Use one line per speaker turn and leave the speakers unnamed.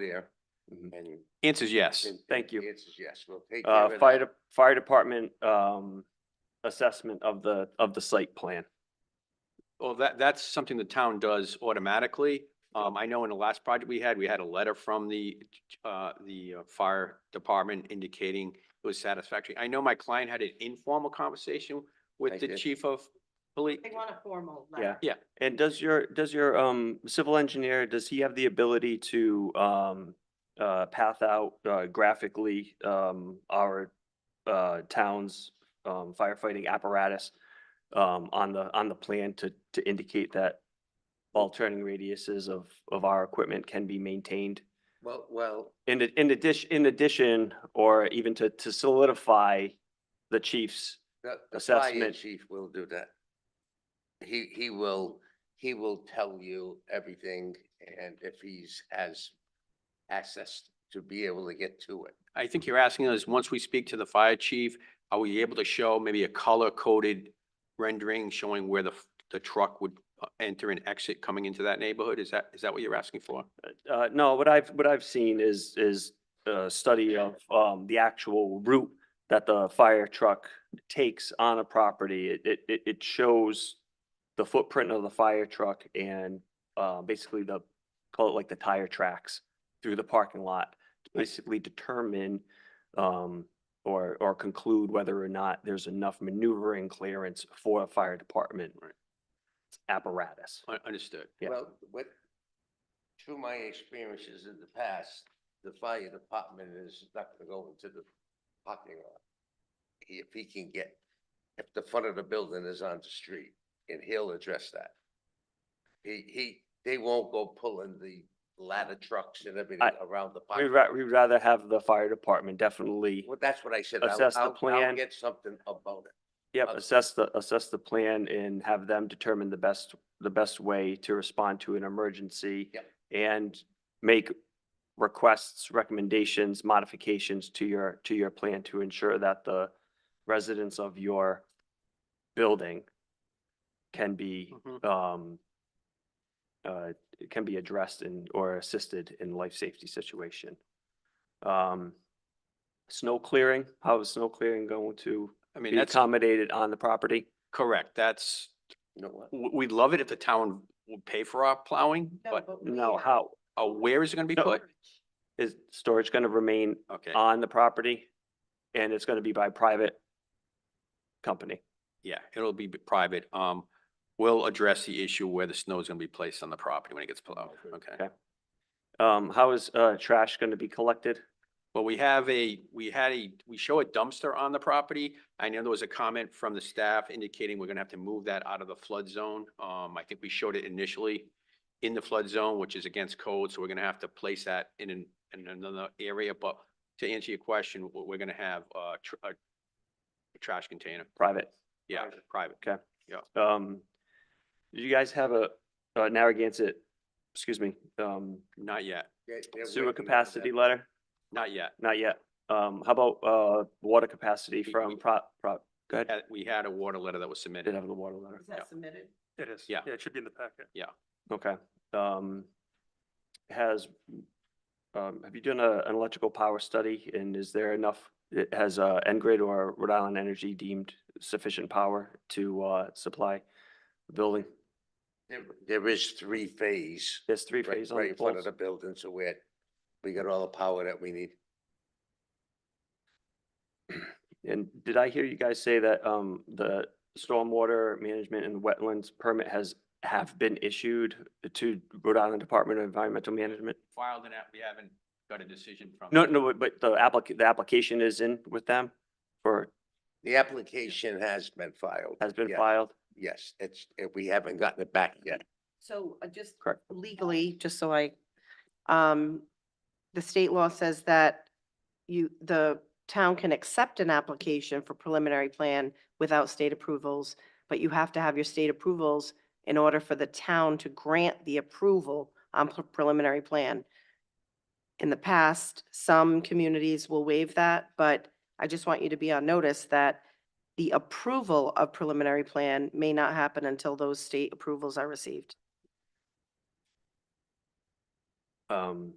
there.
Mhm.
And.
Answer's yes,
and-
Mm-hmm. Thank you.
The answer's yes, we'll take care
Uh,
of it.
fire, de- fire department, um, assessment of the, of the site plan.
Well, that, that's something the town does automatically. Um, I know in the last project we had, we had a letter from the, uh, the uh, fire department indicating it was satisfactory. I know my client had an informal conversation with
Thank
the
you.
chief of police.
They want a formal
Yeah.
letter.
Yeah,
And does your, does your, um, civil engineer, does he have the ability to, um, uh, path out, uh, graphically, um, our, uh, town's, um, firefighting apparatus, um, on the, on the plan to, to indicate that all turning radiuses of, of our equipment can be maintained?
Well, well,
In, ad- in addition, in addition, or even to, to solidify the chief's,
the, the fire
Assessment.
chief will do that. He, he will, he will tell you everything and if he's has access to be able to get to it.
I think you're asking us, once we speak to the fire chief, are we able to show maybe a color coded rendering showing where the, f- the truck would uh, enter and exit coming into that neighborhood? Is that, is that what you're asking for?
uh, no, what I've, what I've seen is, is a study of, um, the actual route that the fire truck takes on a property. It, it- it, it shows the footprint of the fire truck and, uh, basically the, call it like the tire tracks through the parking lot. to Basically determine, um, or, or conclude whether or not there's enough maneuvering clearance for a fire department apparatus.
Un- Understood.
Yeah.
Well, what, through my experiences in the past, the fire department is not gonna go into the parking lot. He- If he can get, if the front of the building is on the street, and he'll address that. He, he, they won't go pulling the ladder trucks and everything
I-
around the
We'd
parking.
ra- we'd rather have the fire department definitely.
Well, that's what I said. I'll-
assess the
I'll- I'll
plan.
Get something about it.
Yep,
Okay.
assess the, assess the plan and have them determine the best, the best way to respond to an emergency.
Yep.
And make requests, recommendations, modifications to your, to your plan to ensure that the residents of your building can be,
Mm-hmm.
Mhm.
um, uh, can be addressed in, or assisted in life safety situation. Um, snow clearing, how is snow clearing going to
I mean,
be
that's
accommodated on the property.
correct. That's,
You know what?
w- we'd love it if the town would pay for our plowing, but
we
No,
are-
how
uh, where is it gonna be put?
is storage going to remain
Okay,
on the property? And it's going to be by private company.
yeah, it'll be b- private. Um, we'll address the issue where the snow is gonna be placed on the property when it gets plowed, okay?
Okay. Um, how is, uh, trash going to be collected?
Well, we have a, we had a, we show a dumpster on the property. I know there was a comment from the staff indicating we're gonna have to move that out of the flood zone. Um, I think we showed it initially in the flood zone, which is against code, so we're gonna have to place that in an, in another area, but to answer your question, we're, we're gonna have, uh, tr- a a trash container,
Private.
yeah, private.
Um, do you guys have a, uh, Narragansett, excuse me, um,
Not yet,
They- they're
sewer
working on that.
capacity letter?
not yet.
Not yet. Um, how about, uh, water capacity
We- we-
from prop, prop, go ahead.
Uh, We had a water letter that was
Did
submitted.
have the water letter.
Is
Yeah.
that submitted?
It is.
Yeah.
it should be in the packet.
Okay, um, has, um, have you done a, an electrical power study and is there enough? it- Has, uh, Engrid or Rhode Island Energy deemed sufficient power to, uh, supply the building?
There- There is three phase.
There's three
right-
phases on
Right
the
in front of
poles.
the building, so we're, we got all the power that we need.
And did I hear you guys say that, um, the stormwater management and wetlands permit has, have been issued to Rhode Island Department of Environmental Management?
Filed and we haven't got a decision from.
No, no, but the applica- the application is in with them or
The application has been filed.
has been
yeah,
filed?
Yes, it's, eh, we haven't gotten it back yet.
So uh, just
Correct.
legally, just so I, um, the state law says that you, the town can accept an application for preliminary plan without state approvals, but you have to have your state approvals in order for the town to grant the approval on pre- preliminary plan. In the past, some communities will waive that, but I just want you to be on notice that the approval of preliminary plan may not happen until those state approvals are received.
Um,